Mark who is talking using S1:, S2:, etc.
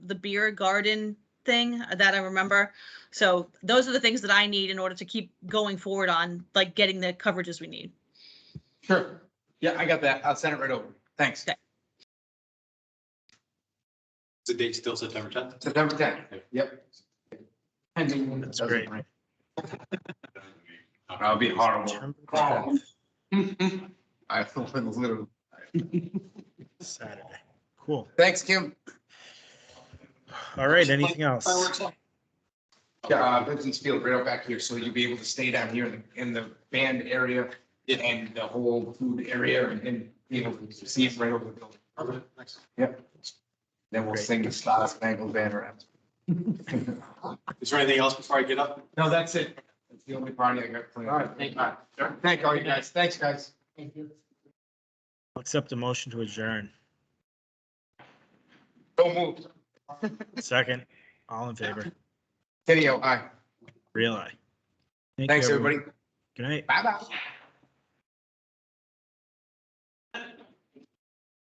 S1: the beer garden thing that I remember. So those are the things that I need in order to keep going forward on like getting the coverages we need.
S2: Sure. Yeah, I got that. I'll send it right over. Thanks.
S1: Okay.
S3: The date still September tenth?
S2: September tenth. Yep.
S4: That's great.
S2: That'll be horrible. Oh. I feel a little.
S4: Saturday. Cool.
S2: Thanks, Kim.
S4: All right, anything else?
S2: Yeah, uh, Vincent's field right up back here, so you'll be able to stay down here in the, in the band area and the whole food area and, and be able to see it right over the building. Yep. Then we'll
S4: Great.
S2: sing the Star Spangled Banner.
S3: Is there anything else before I get up?
S2: No, that's it. That's the only party I got planned. All right, thank you. Thank all you guys. Thanks, guys. Thank you.
S4: I'll Accept a motion to adjourn.
S2: Don't move.
S4: Second, all in favor,
S2: Video, aye.
S4: real aye. Thank you,
S2: Thanks, everybody.
S4: Good night.
S2: Bye-bye.